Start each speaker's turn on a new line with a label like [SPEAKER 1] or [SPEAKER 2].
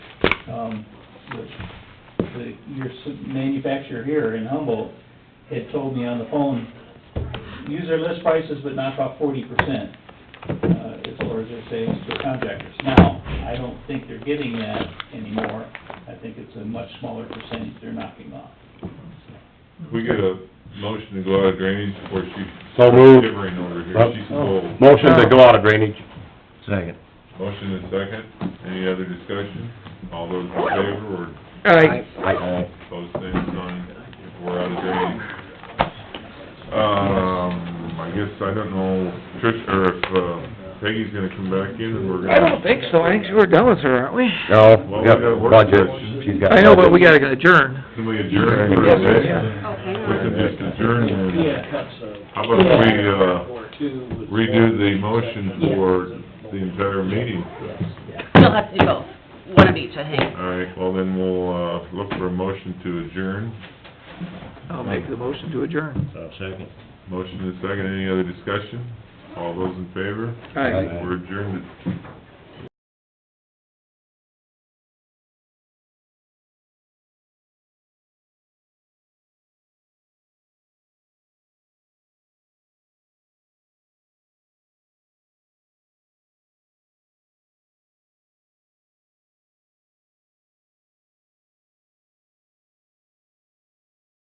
[SPEAKER 1] um, the, the, your s- manufacturer here in Humboldt had told me on the phone, use their list prices, but knock off forty percent, uh, as far as their savings to contractors. Now, I don't think they're getting that anymore, I think it's a much smaller percentage they're knocking off.
[SPEAKER 2] We get a motion to go out of drainage before she...
[SPEAKER 3] So moved.
[SPEAKER 2] Shivering over here, she's cold.
[SPEAKER 3] Motion to go out of drainage.
[SPEAKER 4] Second.
[SPEAKER 2] Motion is second, any other discussion? All those in favor,
[SPEAKER 5] Aye.
[SPEAKER 2] or opposed, same sign, we're out of drainage. Um, I guess, I don't know, Trish, or if uh, Peggy's gonna come back in, and we're gonna...
[SPEAKER 5] I don't think so, I think we're done with her, aren't we?
[SPEAKER 3] No,
[SPEAKER 2] Well,
[SPEAKER 3] we
[SPEAKER 2] we
[SPEAKER 3] got
[SPEAKER 2] gotta work
[SPEAKER 3] budget,
[SPEAKER 2] on it.
[SPEAKER 3] she's got.
[SPEAKER 5] I know, but we
[SPEAKER 3] budget.
[SPEAKER 5] gotta adjourn.
[SPEAKER 2] Can we adjourn for today? We could just adjourn, and how about if we, uh, redo the motion for the entire meeting?
[SPEAKER 6] You'll have to do both, one of each, I think.
[SPEAKER 2] All right, well, then we'll, uh, look for a motion to adjourn.
[SPEAKER 5] I'll make the motion to adjourn.
[SPEAKER 4] Second.
[SPEAKER 2] Motion is second, any other discussion? All those in favor?
[SPEAKER 5] Aye.
[SPEAKER 2] We're adjourned at